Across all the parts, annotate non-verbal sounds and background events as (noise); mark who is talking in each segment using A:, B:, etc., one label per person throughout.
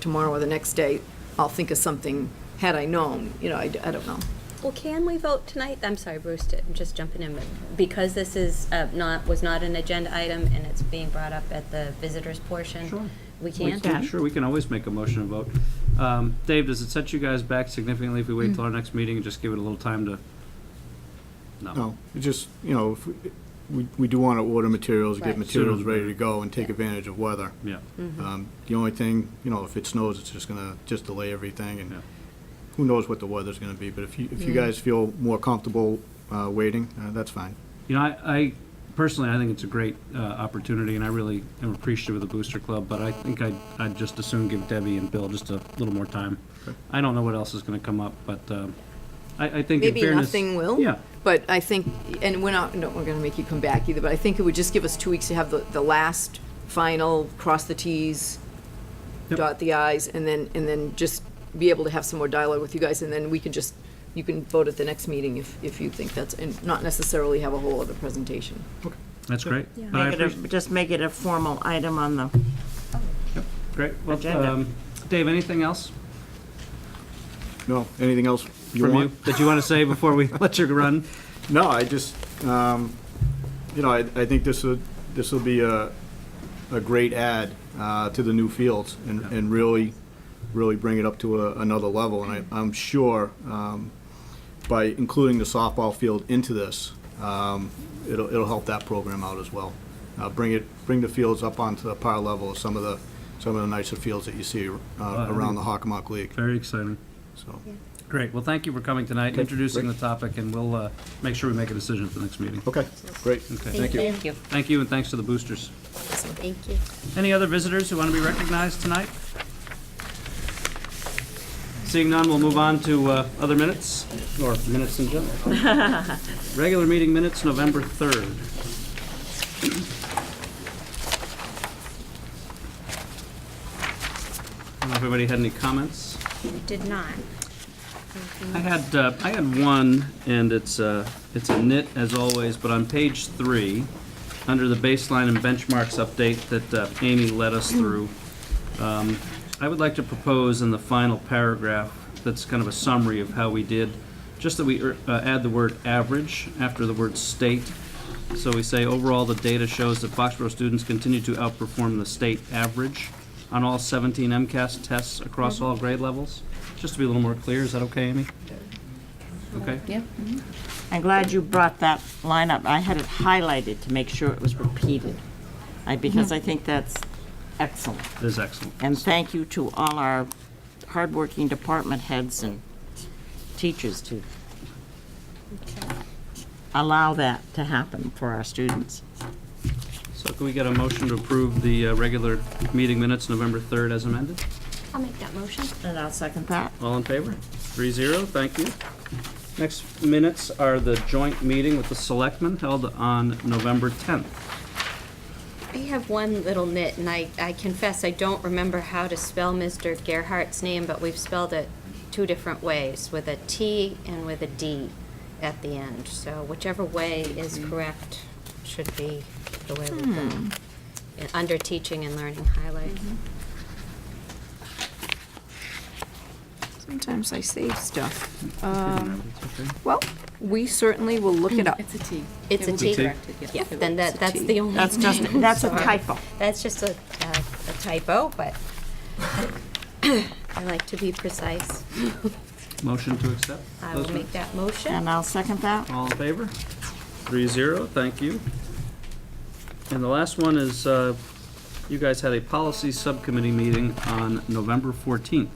A: tomorrow or the next day, I'll think of something, had I known, you know, I, I don't know.
B: Well, can we vote tonight? I'm sorry, Bruce, to- I'm just jumping in, but because this is uh, not, was not an agenda item and it's being brought up at the visitors portion.
C: Sure.
B: We
C: We
B: can?
C: can- Sure, we can always make a motion and vote. Um, Dave, does it set you guys back significantly if we wait till our next meeting and just give it a little time to? No. Oh.
D: No, it just, you know, if we, we- we do want to order materials,
B: Right.
D: get materials ready to go and take advantage of weather.
C: Yeah,
D: Um, The only thing, you know, if it snows, it's just gonna, just delay everything
C: Yeah.
D: and who knows what the weather's gonna be, but if you, if you guys feel more comfortable, uh, waiting, uh, that's fine.
C: you know, I, I personally, I think it's a great, uh, opportunity and I really am appreciative of the Booster Club, but I think I'd, I'd just as soon give Debbie and Bill just a little more time. I don't know what else is gonna come up, but, um, I, I think in
A: Maybe
C: fairness.
A: nothing will.
C: Yeah,
A: But I think, and we're not, no, we're gonna make you come back either, but I think it would just give us two weeks to have the, the last final, cross the Ts,
C: Yep.
A: dot the Is, and then, and then just be able to have some more dialogue with you guys, and then we can just, you can vote at the next meeting if, if you think that's, and not necessarily have a whole other presentation.
C: that's great.
B: Yeah.
C: But I
E: Make it a-
C: appreciate-
E: Just make it a formal item on the,
C: Great, well,
E: agenda.
C: um, Dave, anything else
D: No, anything else you
C: from you
D: want?
C: that you wanna say before we (laughs) let you run?
D: No, I just, um, you know, I, I think this would, this will be a, a great add, uh, to the new fields and,
C: Yeah.
D: and really, really bring it up to a, another level. And I, I'm sure, um, by including the softball field into this, um, it'll, it'll help that program out as well. Uh, bring it, bring the fields up onto the par level of some of the, some of the nicer fields that you see, uh,
C: I
D: around the Hockomock League,
C: Very exciting.
D: so.
C: Great, well, thank you for coming tonight,
D: Okay,
C: introducing the
D: great.
C: topic, and we'll uh, make sure we make a decision at the next meeting.
D: Okay, great.
C: Okay.
D: Thank you.
B: Thank you.
C: Thank you, and thanks to the boosters.
B: Thank you.
C: Any other visitors who want to be recognized tonight? Seeing none, we'll move on to uh, other minutes, or minutes in general.
D: (laughs)
C: Regular meeting minutes, November 3rd. I don't know if Everybody had any comments?
B: Did not.
C: I had, uh, I had one, and it's, uh, it's a nit as always, but on page three, under the baseline and benchmarks update that uh, Amy led us through, um, I would like to propose in the final paragraph, that's kind of a summary of how we did, just that we er, uh, add the word average after the word state. So we say, overall, the data shows that Foxborough students continue to outperform the state average on all 17 MCAS tests across all grade levels. Just to be a little more clear, is that okay, Amy? Okay? Yeah.
E: I'm glad you brought that line up. I had it highlighted to make sure it was repeated, I- because I think that's excellent.
C: That is excellent.
E: And thank you to all our hardworking department heads and teachers to allow that to happen for our students.
C: So can we get a motion to approve the uh, regular meeting minutes, November 3rd as amended?
B: I'll make that motion.
E: And I'll second that.
C: All in favor? Three zero, thank you. Next minutes are the joint meeting with the selectmen held on November 10th.
B: I have one little nit, and I, I confess, I don't remember how to spell Mr. Gerhart's name, but we've spelled it two different ways, with a T and with a D at the end. So whichever way is correct should be the way we go.
F: Hmm.
B: And Under teaching and learning highlight.
F: Mm-hmm.
A: Sometimes I save stuff.
B: Um,
C: Okay.
A: Well, we certainly will look it up.
F: It's a T.
B: It's a
F: It will
B: T.
F: be
B: T.
F: corrected, yes.
B: Yeah,
F: It will-
B: then that,
F: it's a
B: that's
F: T.
B: the only
E: That's just,
B: thing.
E: that's a
B: Sorry.
E: typo. (laughs)
B: That's just a uh, a typo,
F: (coughs)
B: but (coughs) I like to be precise.
C: Motion to accept?
B: I will
C: Those
B: make that motion.
E: And I'll second that.
C: All in favor? Three zero, thank you. And the last one is, uh, you guys had a policy subcommittee meeting on November 14th.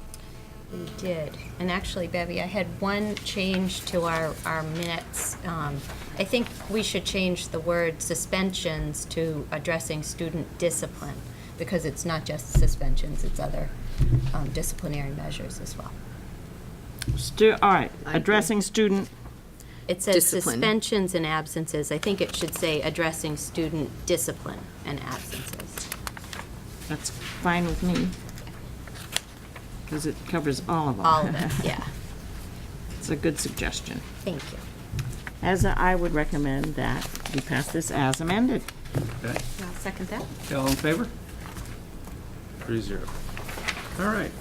B: We did. And actually, Bevy, I had one change to our, our minutes. Um, I think we should change the word suspensions to addressing student discipline, because it's not just suspensions, it's other um, disciplinary measures as well.
E: Stu, all right, addressing student,
B: It says
A: Discipline.
B: suspensions and absences. I think it should say addressing student discipline and absences.
E: that's fine with me. Because it covers all of them.
B: All of it, yeah.
E: (laughs) It's a good suggestion.
B: Thank you.
E: As I would recommend that we pass this as amended.
C: Okay,
B: I'll second that.
C: Okay, all in favor? Three zero. All right,